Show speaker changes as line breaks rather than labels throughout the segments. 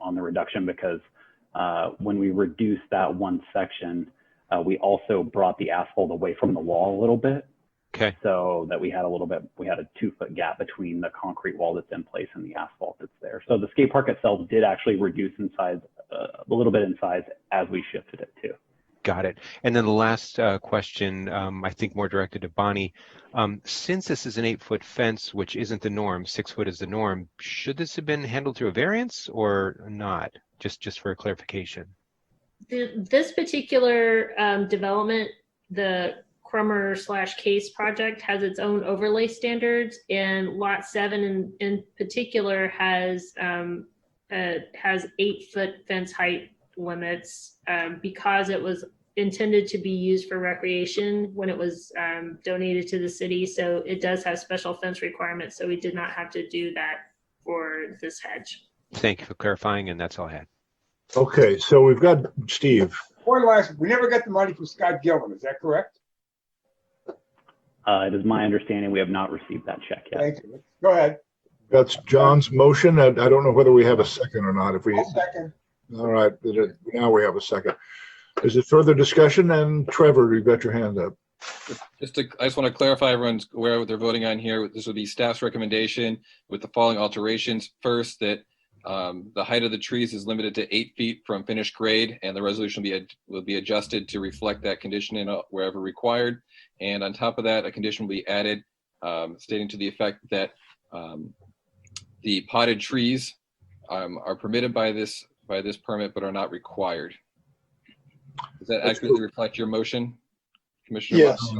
on the reduction because uh, when we reduced that one section, uh, we also brought the asphalt away from the wall a little bit
Okay,
so that we had a little bit, we had a two foot gap between the concrete wall that's in place and the asphalt that's there. So the skate park itself did actually reduce in size, uh, a little bit in size as we shifted it too.
got it. And then the last uh, question, um, I think more directed to Bonnie. Um, Since this is an eight-foot fence, which isn't the norm, six foot is the norm, should this have been handled through a variance or not? Just, just for clarification.
Th- This particular um, development, the Crummer slash Case project has its own overlay standards and lot seven in, in particular has, um, uh, has eight foot fence height limits um, because it was intended to be used for recreation when it was um, donated to the city. So it does have special fence requirements. So we did not have to do that for this hedge.
Thank you for clarifying, and that's all I had.
Okay, so we've got Steve.
One last, we never got the money from Scott Gilman, is that correct?
Uh, it is my understanding we have not received that check yet.
Thank you. Go ahead.
That's John's motion, and I don't know whether we have a second or not. If we,
I'll second.
all right, now we have a second. Is it further discussion? And Trevor, you've got your hand up.
Just to, I just want to clarify, everyone's aware of what they're voting on here. This would be staff's recommendation with the following alterations. First, that um, the height of the trees is limited to eight feet from finished grade, and the resolution will be, ad- will be adjusted to reflect that condition in uh, wherever required. And on top of that, a condition will be added um, stating to the effect that um, the potted trees um, are permitted by this, by this permit, but are not required. Does that accurately reflect your motion, Commissioner?
Yes.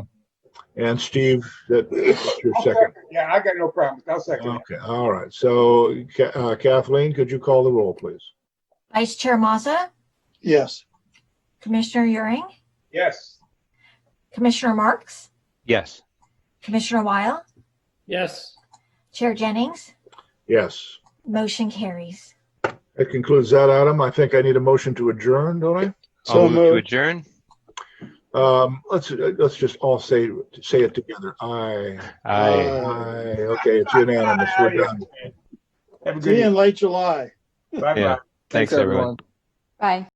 And Steve, that- that's your
I'll
second.
second. Yeah, I got no problems. I'll second.
Okay, all right. So Ca- uh, Kathleen, could you call the roll, please?
Vice Chair Mazza,
yes,
Commissioner Euring,
Yes,
Commissioner Marks,
Yes.
Commissioner Weil,
yes,
Chair Jennings,
Yes.
motion carries.
That concludes that item. I think I need a motion to adjourn, don't
I'll
So
move to
moved.
adjourn.
I? Um, let's, let's just all say, say it together. Aye.
Aye.
Aye. Okay, it's unanimous. We're done.
have a good
see you in
evening.
late July.
Bye-bye.
Yeah. Thanks, everyone.
Bye.